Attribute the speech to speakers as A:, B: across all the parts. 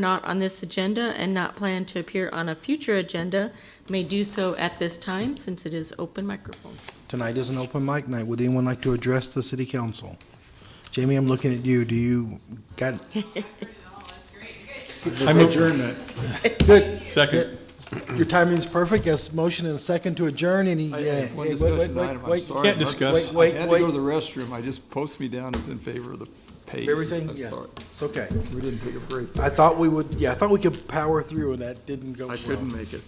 A: not on this agenda and not plan to appear on a future agenda may do so at this time, since it is open microphone.
B: Tonight is an open mic night. Would anyone like to address the city council? Jamie, I'm looking at you. Do you got,
C: I move adjournment.
B: good.
C: Second.
B: Your timing's perfect. Yes, motion and second to adjourn. Any,
D: I
B: yeah.
D: have one
B: Hey, wait, wait,
D: discussion
B: wait,
D: item, I'm
B: wait.
D: sorry.
C: Can't discuss.
B: Wait,
D: I
B: wait,
D: had to go to
B: wait.
D: the restroom, I just, post me down as in favor of the pace.
B: Everything,
D: I'm
B: yeah.
D: sorry.
B: It's okay.
D: We didn't take a break.
B: I thought we would, yeah, I thought we could power through and that didn't go
D: I
B: well.
D: couldn't make it.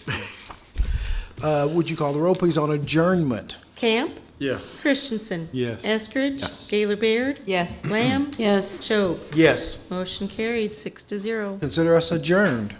B: Uh, would you call the roll, please, on adjournment?
A: Camp?
D: Yes.
A: Christensen?
C: Yes.
A: Eskridge?
C: Yes.
A: Gaylor Baird? Yes. Lamb? Yes. Choate?
B: Yes.
A: Motion carried, six to zero.
B: Consider us adjourned.